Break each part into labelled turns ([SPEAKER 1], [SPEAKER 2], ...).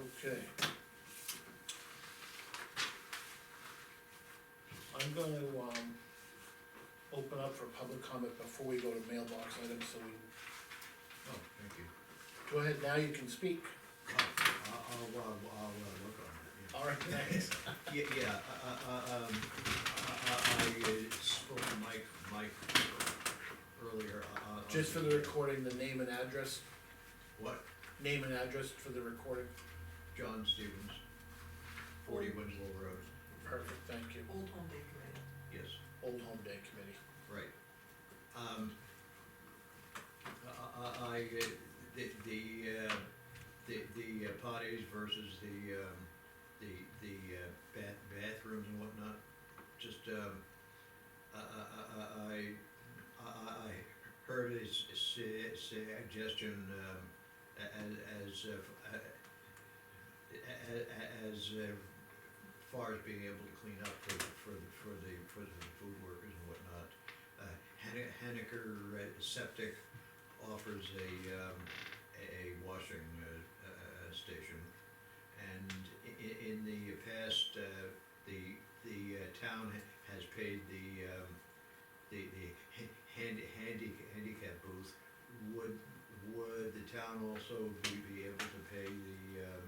[SPEAKER 1] Okay. I'm gonna, um, open up for public comment before we go to mailbox items, so we,
[SPEAKER 2] Oh, thank you.
[SPEAKER 1] go ahead, now you can speak.
[SPEAKER 2] Oh, I'll, I'll, uh, I'll, uh, work on that, yeah.
[SPEAKER 1] All right, thanks.
[SPEAKER 2] Yeah, yeah, uh, uh, um, I, I I spoke to Mike, Mike earlier, uh, uh. on
[SPEAKER 1] Just for the recording, the name and address,
[SPEAKER 2] What,
[SPEAKER 1] name and address for the recording.
[SPEAKER 2] John Stevens, forty Winslow Road,
[SPEAKER 1] Perfect, thank you.
[SPEAKER 3] Old Home Day Committee.
[SPEAKER 2] yes,
[SPEAKER 1] Old Home Day Committee.
[SPEAKER 2] right. Um, I, I, I, uh, the, the, uh, the, the uh, potties versus the, um, the, the uh, bath, bathrooms and whatnot, just, um, I, I, I- I, I, I heard his su- suggestion, um, a- a- as, uh, f- a- a- a- as uh, far as being able to clean up for, for, the- for the, for the food workers and whatnot. Uh, Hen- Henniker uh, Septic offers a, um, a a washing, uh, uh, station. And i- i- in the past, uh, the, the uh, town ha- has paid the, um, the, the ha- hand, handy, handicap booth. Would, would the town also be, be able to pay the, um,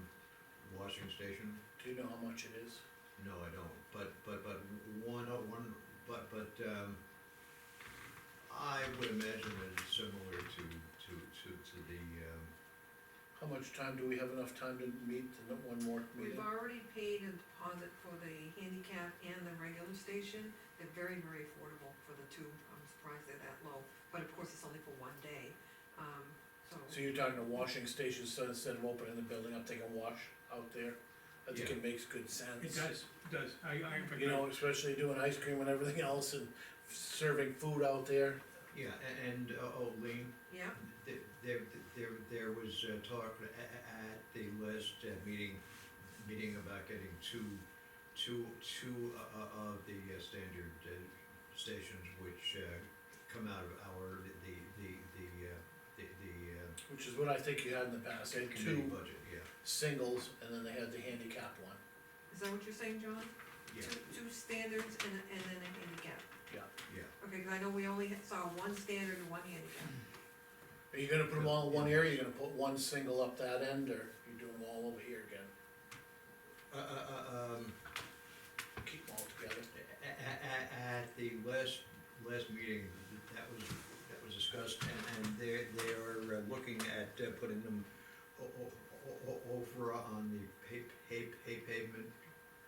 [SPEAKER 2] washing station?
[SPEAKER 1] Do you know how much it is?
[SPEAKER 2] No, I don't, but, but, but one, oh, one, but, but, um, I would imagine that it's similar to, to, to, to the, um,
[SPEAKER 1] How much time, do we have enough time to meet in one more
[SPEAKER 3] We've
[SPEAKER 1] meeting?
[SPEAKER 3] already paid a deposit for the handicap and the regular station, they're very, very affordable for the two, I'm surprised they're that low, but of course, it's only for one day, um, so.
[SPEAKER 1] So you're talking a washing station, so instead of opening the building up, they can wash out there? I think it makes good sense.
[SPEAKER 4] It does, does, I, I. in fact,
[SPEAKER 1] You know, especially doing ice cream and everything else and serving food out there.
[SPEAKER 2] yeah, a- and, uh, oh, Lean,
[SPEAKER 3] Yeah,
[SPEAKER 2] There, there, there, there was uh, talk a- a- at the last uh, meeting, meeting about getting two, two, two uh, uh, of the uh, standard uh, stations which uh, come out of our, the, the, the, uh, the, the uh,
[SPEAKER 1] Which is what I think you had in the past, they had
[SPEAKER 2] committee
[SPEAKER 1] two
[SPEAKER 2] budget, yeah,
[SPEAKER 1] singles, and then they had the handicap one.
[SPEAKER 3] is that what you're saying, John?
[SPEAKER 2] yeah,
[SPEAKER 3] Two, two standards and, a- and then a handicap,
[SPEAKER 2] yeah.
[SPEAKER 3] okay, 'cause I know we only had- saw one standard and one handicap.
[SPEAKER 2] Hmm.
[SPEAKER 1] Are you gonna put them all in one area, you're gonna put one single up that end, or you do them all over here again,
[SPEAKER 2] Uh, uh, uh, um,
[SPEAKER 1] keep them all together?
[SPEAKER 2] A- a- a- At the last, last meeting, that was, that was discussed, and, and they're, they are uh, looking at uh, putting them o- o- o- o- over on the pa- pa- pa- pavement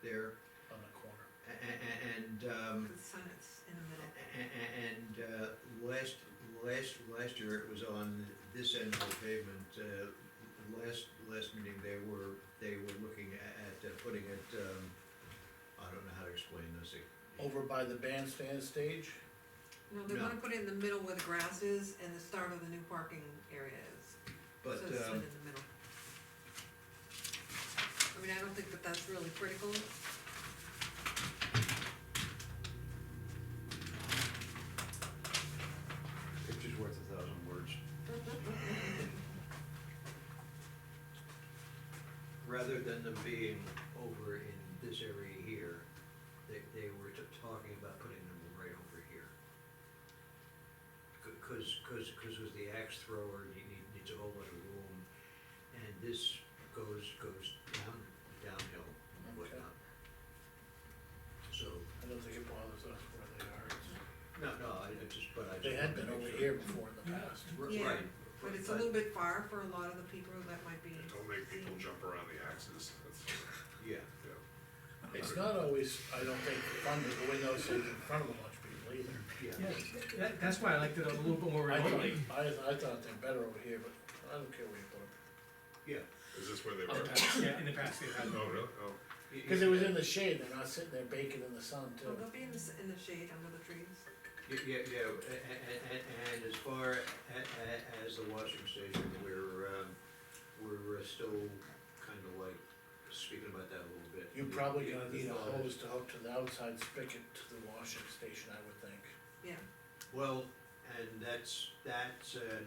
[SPEAKER 2] there,
[SPEAKER 1] On the corner.
[SPEAKER 2] a- a- and, um,
[SPEAKER 3] The sun is in the middle.
[SPEAKER 2] a- a- and, uh, last, last, last year it was on this end of the pavement, uh, last, last meeting, they were, they were looking at, at uh, putting it, um, I don't know how to explain this.
[SPEAKER 1] Over by the bandstand stage,
[SPEAKER 3] No, they
[SPEAKER 2] No.
[SPEAKER 3] wanna put it in the middle where the grass is and the start of the new parking area is.
[SPEAKER 2] But,
[SPEAKER 3] So it's
[SPEAKER 2] um,
[SPEAKER 3] in the middle. I mean, I don't think that that's really critical.
[SPEAKER 2] Picture's worth a thousand words. Rather than them being over in this area here, they, they were t- talking about putting them right over here. C- Cause, cause, cause with the axe thrower, you need, needs a whole lot of room, and this goes, goes down, downhill and whatnot. So,
[SPEAKER 1] I don't think it bothers us where they are, It's-
[SPEAKER 2] no, no, I I just, but I just.
[SPEAKER 1] they had been
[SPEAKER 2] wanted to
[SPEAKER 1] over
[SPEAKER 2] make sure.
[SPEAKER 1] here before in the past.
[SPEAKER 2] R-
[SPEAKER 3] Yeah,
[SPEAKER 2] Right.
[SPEAKER 3] But it's a little bit far for a lot of the people that might be.
[SPEAKER 5] Don't make people jump around the axes, that's,
[SPEAKER 2] Yeah.
[SPEAKER 5] yeah.
[SPEAKER 1] It's not always, I don't think, fun to go in those things in front of a bunch of people either.
[SPEAKER 2] Yeah,
[SPEAKER 4] Yeah, that, that's why I liked it a little bit more
[SPEAKER 1] I thought,
[SPEAKER 4] remotely.
[SPEAKER 1] I, I thought they're better over here, but I don't care where you put them.
[SPEAKER 2] yeah.
[SPEAKER 5] Is this where they
[SPEAKER 4] In the
[SPEAKER 5] were?
[SPEAKER 4] past, Yeah, in the past they've had.
[SPEAKER 5] Oh, really? Oh,
[SPEAKER 1] Cause it was in the shade, they're not sitting there baking in the sun
[SPEAKER 3] So
[SPEAKER 1] too.
[SPEAKER 3] they'll be in the, s- in the shade under the trees.
[SPEAKER 2] Yeah, yeah, yeah, and, and as far a- a- as the washing station, we're, um, we're uh, still kinda like speaking about that a little bit.
[SPEAKER 1] You're probably gonna
[SPEAKER 2] The- the
[SPEAKER 1] need a
[SPEAKER 2] thought
[SPEAKER 1] hose
[SPEAKER 2] is-
[SPEAKER 1] to hook to the outside spigot to the washing station, I would think.
[SPEAKER 3] Yeah.
[SPEAKER 2] Well, and that's, that's, uh,